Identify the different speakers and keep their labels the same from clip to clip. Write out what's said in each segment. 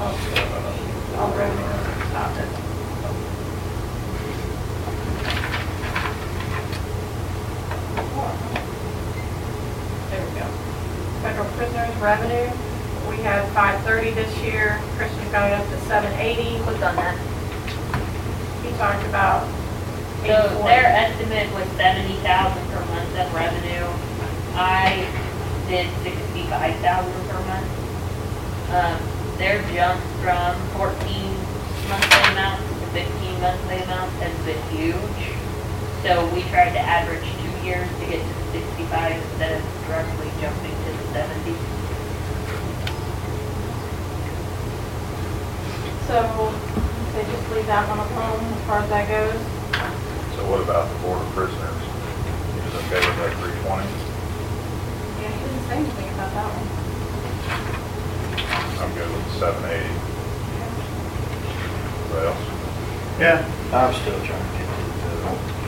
Speaker 1: All revenue stopped it. There we go. Federal prisoners revenue, we had five thirty this year, Christian got it up to seven eighty,
Speaker 2: Clicked on that.
Speaker 1: he talked about eight
Speaker 2: So their
Speaker 1: forty.
Speaker 2: estimate was seventy thousand per month of revenue. I did sixty-five thousand per month. Um, their jump from fourteen monthly amounts to fifteen monthly amounts has been huge. So we tried to average two years to get to sixty-five instead of directly jumping to the seventy.
Speaker 1: So they just leave that one alone as far as that goes.
Speaker 3: So what about the board of prisoners? Is it okay with that three twenty?
Speaker 1: Yeah, he didn't say anything about that one.
Speaker 3: I'm good with seven eighty. What else?
Speaker 4: Yeah. I'm still trying to get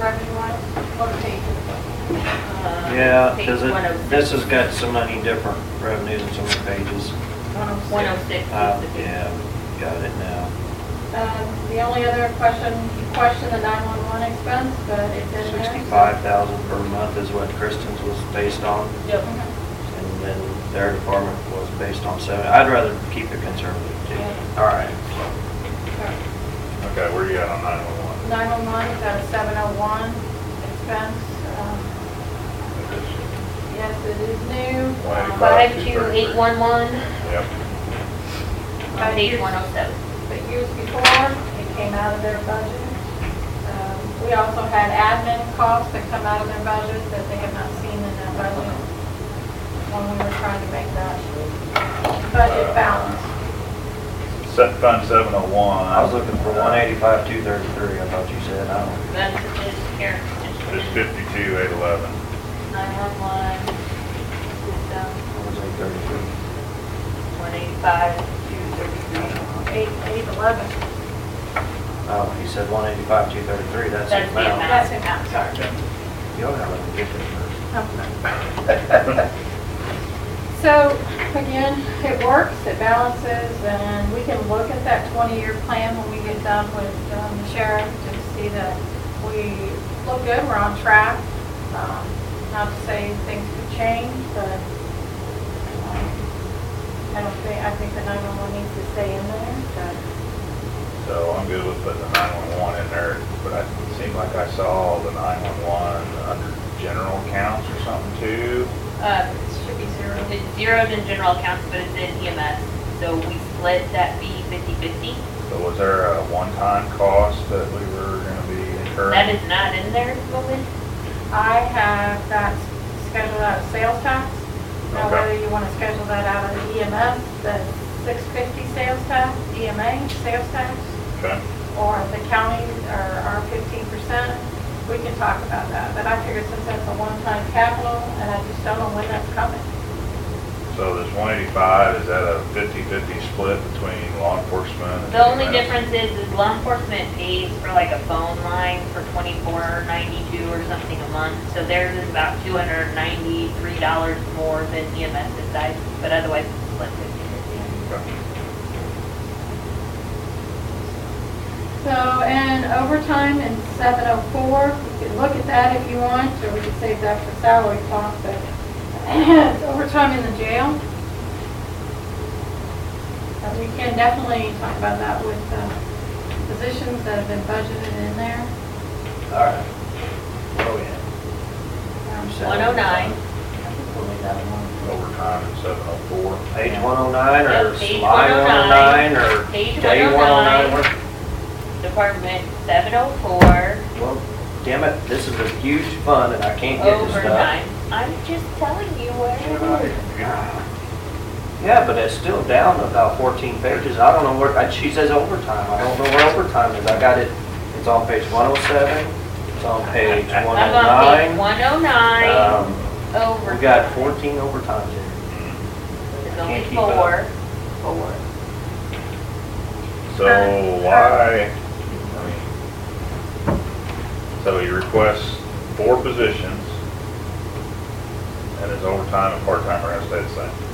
Speaker 1: Revenue wise, what page is it?
Speaker 2: Uh,
Speaker 4: to, yeah,
Speaker 2: page
Speaker 4: because
Speaker 2: 106.
Speaker 4: this has got so many different revenues and so many pages.
Speaker 1: One oh six.
Speaker 2: One oh six is
Speaker 4: Uh,
Speaker 2: the big
Speaker 4: Yeah, got it now.
Speaker 1: Um, The only other question, you questioned the 911 expense, but it's in there.
Speaker 4: Sixty-five thousand per month is what Kristen's was based on,
Speaker 2: Yep.
Speaker 4: and then their department was based on seven. I'd rather keep it conservative too.
Speaker 1: Yeah.
Speaker 4: All right.
Speaker 3: Okay, where you at on nine oh one one?
Speaker 1: 911 is at a 701 expense. Um, Yes, it is new. um,
Speaker 3: Why?
Speaker 1: but-
Speaker 2: Five two eight one one,
Speaker 3: Yep,
Speaker 1: but years-
Speaker 2: page one oh seven.
Speaker 1: But years before, it came out of their budget. Um, We also had admin costs that come out of their budget that they have not seen in their budget when we were trying to make that budget balance.
Speaker 3: set fund seven oh one.
Speaker 4: I was looking for one eighty-five, two thirty-three, I thought you said, I don't.
Speaker 2: That's it, here.
Speaker 3: It's fifty-two, eight eleven.
Speaker 2: Nine-one-one,
Speaker 4: What was eight thirty-three?
Speaker 2: one eighty-five, two thirty-three.
Speaker 1: Eight, eight eleven.
Speaker 4: Oh, you said one eighty-five, two thirty-three, that's
Speaker 2: That's
Speaker 4: the
Speaker 2: the
Speaker 4: amount.
Speaker 2: amount.
Speaker 1: That's it, I'm sorry.
Speaker 4: You'll have to get there first.
Speaker 1: So, again, it works, it balances, and we can look at that 20-year plan when we get done with um, the sheriff to see that we look good, we're on track. Um, Not to say things could change, but um, I don't think, I think the 911 needs to stay in there, but
Speaker 3: So I'm good with putting the nine-one-one in there, but I- it seemed like I saw the nine-one-one under general accounts or something too.
Speaker 2: Uh,
Speaker 1: it should be zero.
Speaker 2: it's zeroed in general accounts, but it's in EMS, so we split that fee fifty-fifty.
Speaker 3: So was there a one-time cost that we were gonna be incurring?
Speaker 2: That is not in there, Logan?
Speaker 1: I have that scheduled out of sales tax. Now,
Speaker 3: Okay.
Speaker 1: whether you want to schedule that out of the EMS, the 650 sales tax, EMA sales tax,
Speaker 3: Okay.
Speaker 1: or the county, or our 15%, we can talk about that. But I figure since that's a one-time capital, and I just don't know when that's coming.
Speaker 3: So this one eighty-five, is that a fifty-fifty split between law enforcement? and
Speaker 2: The only
Speaker 3: EMS?
Speaker 2: difference is, is law enforcement pays for like a phone line for twenty-four ninety-two or something a month. So theirs is about two hundred and ninety-three dollars more than E EMS side, but otherwise it's split fifty-fifty.
Speaker 3: Okay.
Speaker 1: So, and overtime in 704, you can look at that if you want, or we could save that for salary talk, but it's overtime in the jail. And we can definitely talk about that with the positions that have been budgeted in there.
Speaker 4: All right. Oh, yeah.
Speaker 1: Um,
Speaker 4: So-
Speaker 2: 109.
Speaker 4: We'll leave that alone.
Speaker 3: overtime at seven oh four.
Speaker 4: Page one oh nine or
Speaker 2: Yep, page
Speaker 4: slide one oh nine
Speaker 2: 109,
Speaker 4: or
Speaker 2: page
Speaker 4: day one oh
Speaker 2: 109.
Speaker 4: nine?
Speaker 2: Department seven oh four.
Speaker 4: Well, damn it, this is a huge fund and I can't get this stuff.
Speaker 2: Overtime. I'm just telling you where it is.
Speaker 4: Yeah, but it's still down about fourteen pages. I don't know where, I- she says overtime. I don't know where overtime is. I got it, it's on page one oh seven, it's on page
Speaker 3: I'm
Speaker 4: one
Speaker 2: I'm on page
Speaker 4: oh
Speaker 2: one oh nine,
Speaker 4: nine.
Speaker 2: over.
Speaker 4: We got fourteen overtimes here.
Speaker 2: There's only
Speaker 4: Can't keep up.
Speaker 2: four, four.
Speaker 3: So why, I mean, so he requests four positions, and his overtime and part-timer has to stay the same.